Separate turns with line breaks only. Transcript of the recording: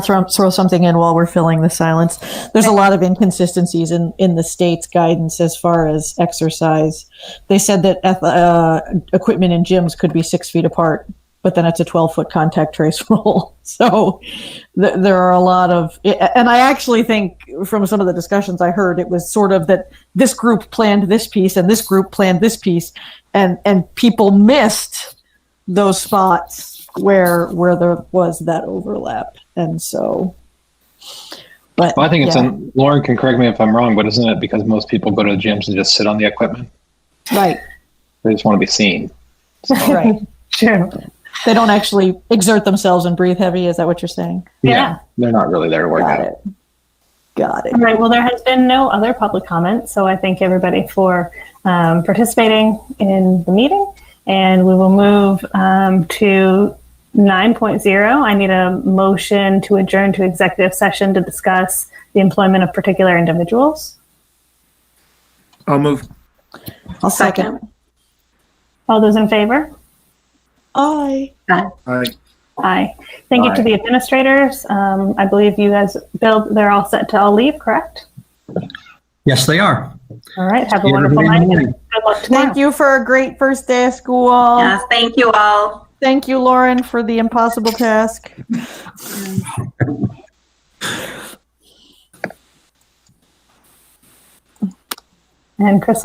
throw, throw something in while we're filling the silence. There's a lot of inconsistencies in, in the state's guidance as far as exercise. They said that ath- uh, equipment in gyms could be six feet apart, but then it's a 12 foot contact trace rule. So th- there are a lot of, and I actually think from some of the discussions I heard, it was sort of that this group planned this piece and this group planned this piece, and and people missed those spots where where there was that overlap and so but
Well, I think it's,
yeah,
an, Lauren can correct me if I'm wrong, but isn't it because most people go to the gyms and just sit on the equipment?
right
They just want to be seen.
right
True.
they don't actually exert themselves and breathe heavy is that what you're saying
Yeah.
They're not really there to work
got
out.
it got it
All right. Well, there has been no other public comment, so I thank everybody for um, participating in the meeting. And we will move um, to 9.0. I need a motion to adjourn to executive session to discuss the employment of particular individuals.
I'll move.
i'll second
All those in favor?
i
I
Aye. Thank you to
Aye.
the administrators. Um, I believe you guys, Bill, they're all set to all leave, correct?
Yes, they are.
All right. Have a
See everybody
wonderful
in the
night.
morning.
Good luck tomorrow.
thank you for a great first day of school
Yes, thank you all.
thank you lauren for the impossible task
And Chris